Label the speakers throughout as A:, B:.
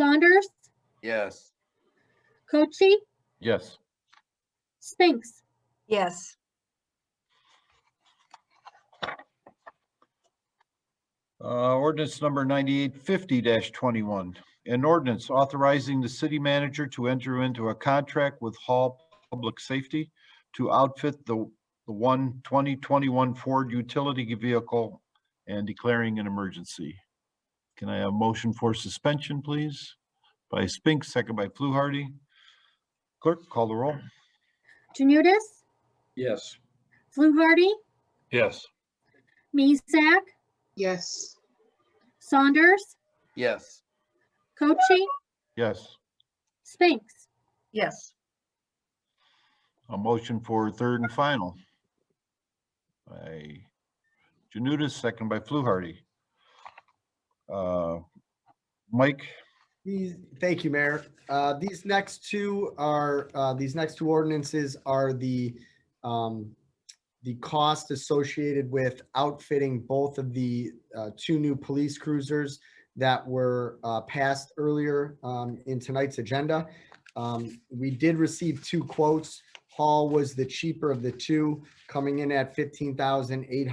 A: Saunders,
B: Yes.
A: Cochi,
C: Yes.
A: Spinks.
D: Yes.
C: Uh, ordinance number ninety-eight fifty twenty-one. An ordinance authorizing the city manager to enter into a contract with Hall Public Safety to outfit the, the one 2021 Ford utility vehicle and declaring an emergency. Can I have a motion for suspension, please? By Spinks, second by Fluharty. Clerk, call the roll.
A: Janutus,
B: Yes.
A: Fluharty,
C: Yes.
A: Miesak,
D: Yes.
A: Saunders,
B: Yes.
A: Cochi,
C: Yes.
A: Spinks.
D: Yes.
C: A motion for third and final. By Janutus, second by Fluharty. Uh, Mike,
E: These, thank you, Mayor. Uh, These next two are, uh, these next two ordinances are the, um, the cost associated with outfitting both of the uh, two new police cruisers that were uh, passed earlier um, in tonight's agenda. Um, We did receive two quotes. Hall was the cheaper of the two, coming in at uh,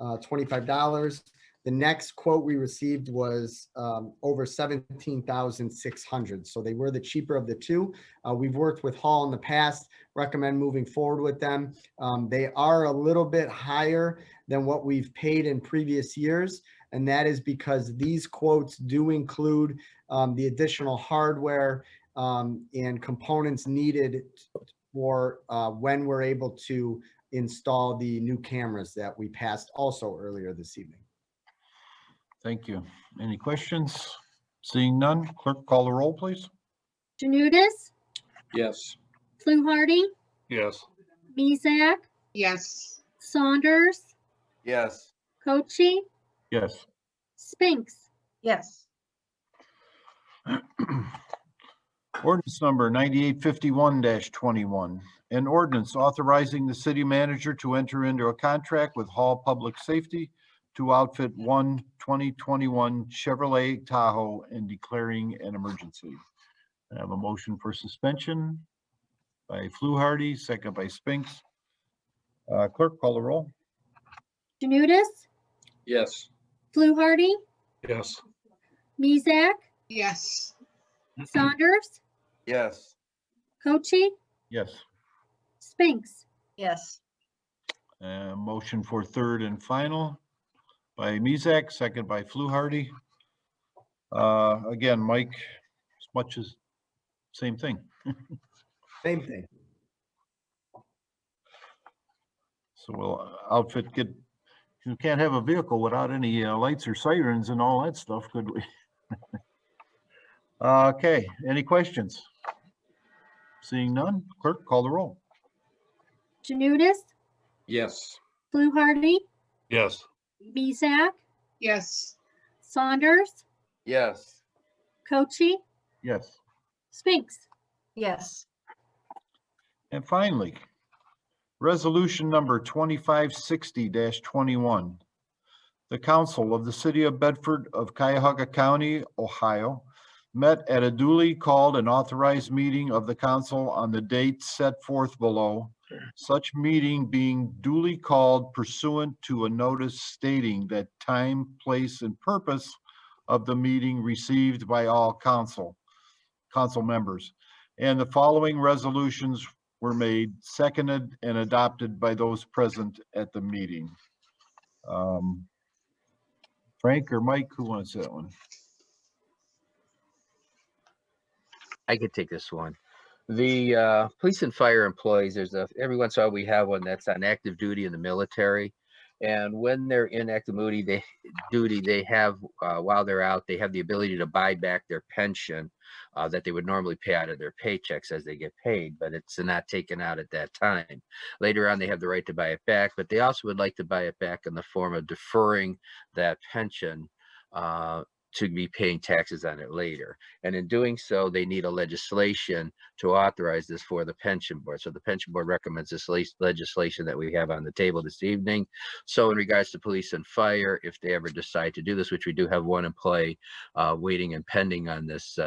E: $15,825. The next quote we received was um, over seventeen thousand six hundred, so they were the cheaper of the two. Uh, We've worked with Hall in the past, recommend moving forward with them. Um, They are a little bit higher than what we've paid in previous years, and that is because these quotes do include um, the additional hardware um, and components needed for uh, when we're able to install the new cameras that we passed also earlier this evening.
C: thank you. Any questions? Seeing none, clerk call the roll, please.
A: Janutus,
B: Yes.
A: Fluharty,
C: Yes.
A: Miesak,
D: Yes.
A: Saunders,
B: Yes.
A: Cochi,
C: Yes.
A: Spinks.
D: Yes.
C: Ordinance number ninety-eight fifty-one twenty-one. An ordinance authorizing the city manager to enter into a contract with Hall Public Safety to outfit one 2021 Chevrolet Tahoe and declaring an emergency. I have a motion for suspension by Fluharty, second by Spinks. Uh, clerk, call the roll.
A: Janutus,
B: Yes.
A: Fluharty,
B: Yes.
A: Miesak,
D: Yes.
A: Saunders,
B: Yes.
A: Cochi,
C: Yes.
A: Spinks.
D: Yes.
C: Uh, motion for third and final by Mezak, second by Fluharty. Uh, again, Mike, as much as, same thing.
E: Same thing.
C: So we'll uh, outfit, get, you can't have a vehicle without any uh, lights or sirens and all that stuff, could we? Okay, any questions? Seeing none, clerk, call the roll.
A: Janutus,
B: Yes.
A: Fluharty,
C: Yes.
A: Miesak,
D: Yes.
A: Saunders,
B: Yes.
A: Cochi,
C: Yes.
A: Spinks.
D: Yes.
C: And finally, resolution number twenty-five sixty twenty-one. The council of the city of Bedford of Cuyahoga County, Ohio, met at a duly called and authorized meeting of the council on the date set forth below. Such meeting being duly called pursuant to a notice stating that time, place, and purpose of the meeting received by all council, council members. And the following resolutions were made, seconded, and adopted by those present at the meeting. Um, Frank or Mike, who wants that one?
F: I could take this one. The uh, police and fire employees, there's a, every once in a while we have one that's on active duty in the military. And when they're in active duty, they, duty, they have, uh, while they're out, they have the ability to buy back their pension uh, that they would normally pay out of their paychecks as they get paid, but it's not taken out at that time. Later on, they have the right to buy it back, but they also would like to buy it back in the form of deferring that pension uh, to be paying taxes on it later. And in doing so, they need a legislation to authorize this for the pension board. So the pension board recommends this lat- legislation that we have on the table this evening. So in regards to police and fire, if they ever decide to do this, which we do have one in play, uh, waiting and pending on this, uh,